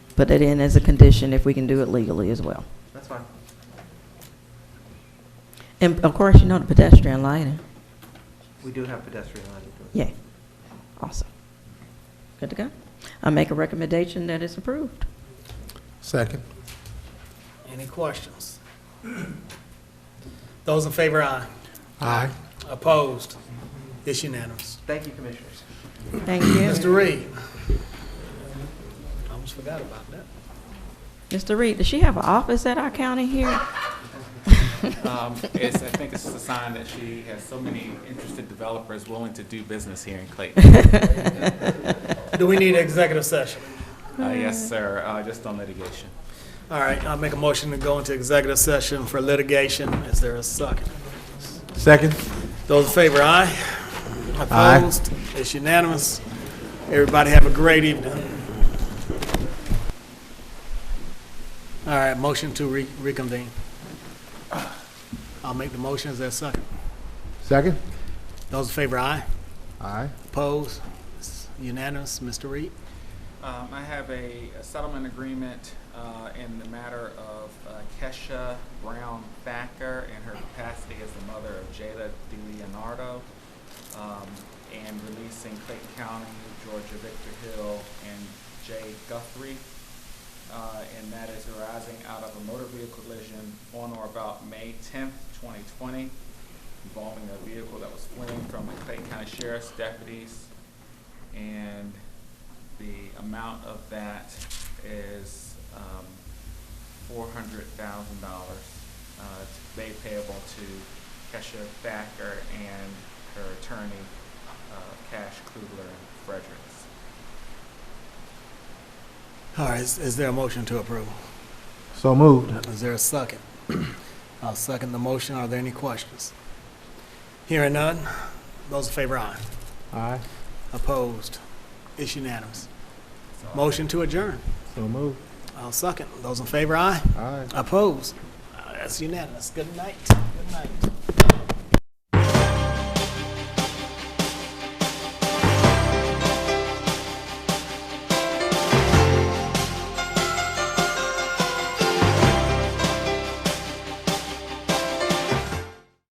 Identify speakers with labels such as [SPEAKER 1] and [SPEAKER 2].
[SPEAKER 1] put it in as a condition if we can do it legally as well.
[SPEAKER 2] That's fine.
[SPEAKER 1] And of course, you know the pedestrian lighting.
[SPEAKER 2] We do have pedestrian lighting.
[SPEAKER 1] Yeah, awesome. Good to go. I make a recommendation that it's approved.
[SPEAKER 3] Second.
[SPEAKER 4] Any questions? Those in favor, aye.
[SPEAKER 3] Aye.
[SPEAKER 4] Opposed? It's unanimous.
[SPEAKER 2] Thank you, commissioners.
[SPEAKER 1] Thank you.
[SPEAKER 4] Mr. Reed? I Almost forgot about that.
[SPEAKER 1] Mr. Reed, does she have an office at our county here?
[SPEAKER 5] Um, It's, I think it's just a sign that she has so many interested developers willing to do business here in Clayton.
[SPEAKER 4] Do we need an executive session?
[SPEAKER 5] Uh, Yes, sir, uh, just on litigation.
[SPEAKER 4] All right, I'll make a motion to go into executive session for litigation. Is there a second?
[SPEAKER 3] Second.
[SPEAKER 4] Those in favor, aye.
[SPEAKER 3] Aye.
[SPEAKER 4] Opposed? It's unanimous. Everybody have a great evening. All right, motion to re- reconvene. I'll make the motion. Is there a second?
[SPEAKER 3] Second.
[SPEAKER 4] Those in favor, aye.
[SPEAKER 3] Aye.
[SPEAKER 4] Opposed? It's Unanimous, Mr. Reed.
[SPEAKER 5] Um, I have a a settlement agreement uh, in the matter of uh, Kesha Brown Thacker in her capacity as the mother of Jada DeLeonardo um, and releasing Clayton County, Georgia Victor Hill, and Jay Guthrie. Uh, And that is arising out of a motor vehicle collision on or about May tenth, twenty twenty, involving a vehicle that was fleeing from the Clayton County Sheriff's deputies. And the amount of that is um, $400,000. uh, They payable to Kesha Thacker and her attorney, uh, Cash Kugler and Fredericks.
[SPEAKER 4] All right, is is there a motion to approve?
[SPEAKER 3] So moved.
[SPEAKER 4] Is there a second? I'll second the motion. Are there any questions? Hearing none. Those in favor, aye.
[SPEAKER 3] Aye.
[SPEAKER 4] Opposed? It's unanimous.
[SPEAKER 5] So I'll-
[SPEAKER 4] Motion to adjourn.
[SPEAKER 3] So moved.
[SPEAKER 4] I'll second. Those in favor, aye.
[SPEAKER 3] Aye.
[SPEAKER 4] Opposed? Uh, That's unanimous. Good night. Good night.